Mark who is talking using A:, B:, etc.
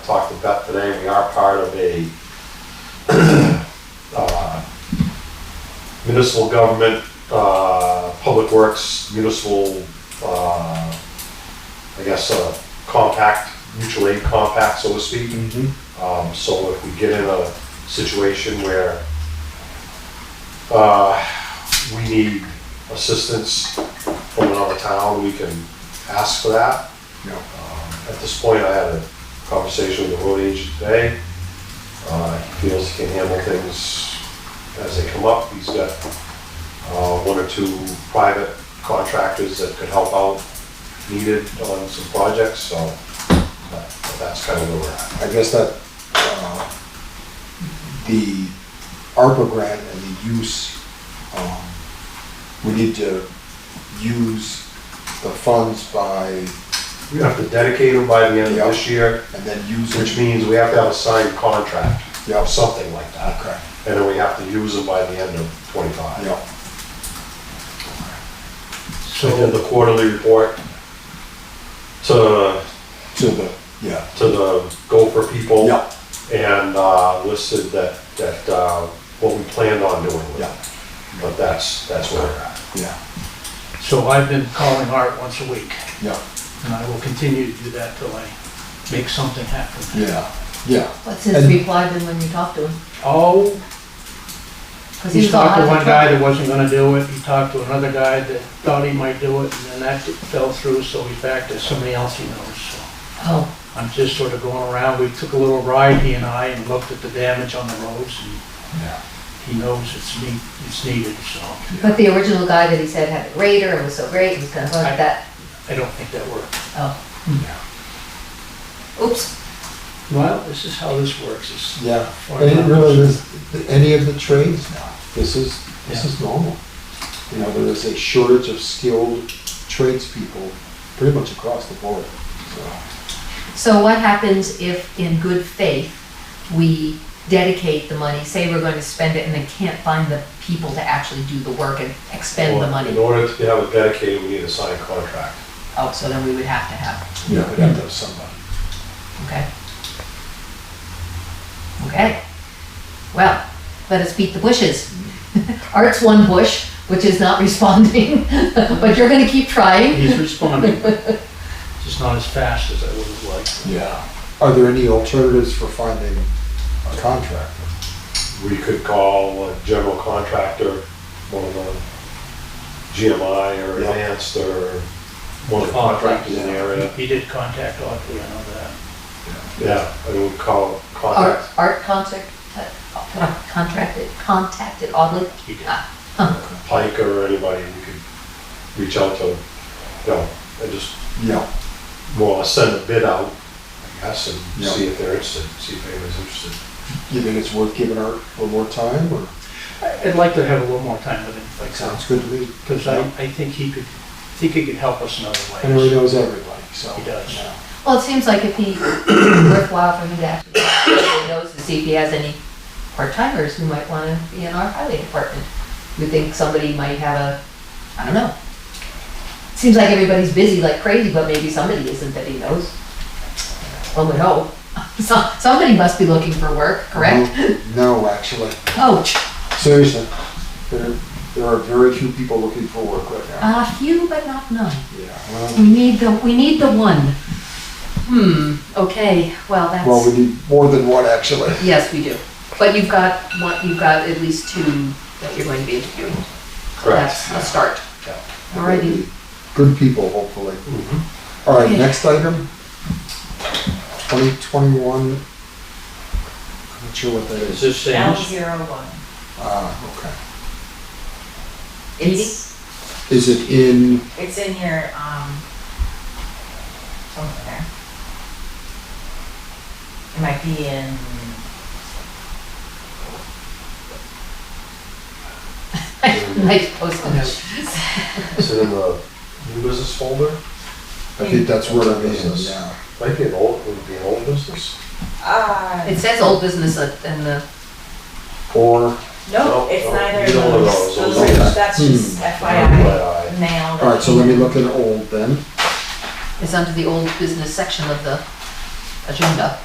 A: talked to Beth today, we are part of a uh, municipal government, uh, public works, municipal, uh, I guess, uh, compact, mutual aid compact, so to speak. Um, so if we get in a situation where, uh, we need assistance from another town, we can ask for that.
B: Yeah.
A: Um, At this point, I had a conversation with the road agent today. Uh, he feels he can handle things as they come up. He's got, uh, one or two private contractors that could help out needed on some projects, so that- that's kind of where we're at.
B: I guess that, uh, the ARPA grant and the use, um, we need to use the funds by,
A: We have to dedicate them by the end of this year,
B: and then use.
A: which means we have to have a signed contract
B: Yeah,
A: of something like that.
B: okay,
A: And then we have to use them by the end of twenty-five.
B: Uh, yeah,
A: So then the quarterly report to,
B: to the, yeah,
A: to the Gopher people.
B: yeah,
A: And, uh, listed that, that, uh, what we planned on doing with
B: Yeah.
A: it. But that's, that's where we're at.
B: yeah,
C: So I've been calling Art once a week,
B: yeah,
C: and I will continue to do that till I make something happen.
B: yeah, yeah,
D: What's his
B: And-
D: reply been when you talk to him?
C: Oh,
D: 'Cause
C: he
D: was all
C: talked to
D: out of
C: one guy
D: trouble.
C: that wasn't gonna do it, he talked to another guy that thought he might do it, and then that fell through, so he's back to somebody else he knows, so.
D: Oh,
C: I'm just sort of going around, we took a little ride, he and I, and looked at the damage on the roads, and
B: yeah,
C: he knows it's need, it's needed, so.
D: but the original guy that he said had a grader and was so great, he was gonna hook
C: I-
D: that,
C: I don't think that worked.
D: oh,
B: yeah.
D: oops.
C: Well, this is how this works, it's.
B: Yeah, I didn't realize this- any of the trades now. This is, this is normal. You know, there is a shortage of skilled tradespeople pretty much across the board, so.
D: So what happens if, in good faith, we dedicate the money, say we're going to spend it and then can't find the people to actually do the work and expend the
A: In
D: money?
A: order to have it dedicated, we need a signed contract.
D: Oh, so then we would have to have,
B: You know, we'd have to have somebody.
D: okay? Okay, well, let us beat the bushes. Art's one bush, which is not responding, but you're gonna keep trying.
C: He's responding, just not as fast as I would have liked.
B: Yeah. Are there any alternatives for finding a contractor?
A: We could call a general contractor, one of the GMI or
B: Yeah.
A: Advanced or one of the contractors in the area.
C: He did contact Audrey, I know that.
A: Yeah, I would call
D: Art,
A: contact.
D: Art concert, contracted, contacted oddly.
C: He did.
D: Ah,
A: Pike or anybody, we could reach out to, you know, and just
B: Yeah,
A: more or less send a bid out, I guess, and
B: Yeah.
A: see if they're interested, see if anybody's interested.
B: you think it's worth giving her a little more time, or?
C: I- I'd like to have a little more time with him, if I could,
B: Sounds good to me.
C: because I, I think he could, I think he could help us in other
B: And he
C: ways.
B: knows everybody, so.
C: He does.
B: yeah.
D: Well, it seems like it'd be worthwhile for him to actually he knows to see if he has any part-timers who might want to be in our highway department. You think somebody might have a, I don't know. Seems like everybody's busy like crazy, but maybe somebody isn't that he knows. One would hope. So- Somebody must be looking for work, correct?
B: Mm-hmm. No, actually,
D: Ouch.
B: seriously, there, there are very few people looking for work right now.
D: A few, but not none.
B: Yeah, well,
D: We need the, we need the one. Hmm, okay, well,
B: Well,
D: that's,
B: we need more than one, actually.
D: yes, we do. But you've got, one. you've got at least two that you're going to be interviewing. That's a start.
A: Yeah.
D: Alrighty,
B: Good people, hopefully.
A: Mhm.
B: All right,
D: Okay.
B: next item. Twenty twenty-one. I'm not sure what that
C: Is
B: is.
C: this
E: L
C: Sam's?
E: zero one.
B: Ah, okay.
D: it's,
B: Is it in,
E: It's in your, um, somewhere. It might be in,
D: nice post note.
A: Mm-hmm. Is it in the new business folder?
B: I think that's where it
A: Business.
B: is, yeah.
A: Might be an old, would it be an old business?
E: uh,
D: It says old business at- in the,
B: Or,
A: No,
E: no, it's
A: no,
E: neither
A: you
E: of
A: don't know those.
E: those. Those are,
B: Okay.
E: that's just FYI,
A: Right,
E: mail.
B: all right, so let me look at old then.
D: it's under the old business section of the agenda.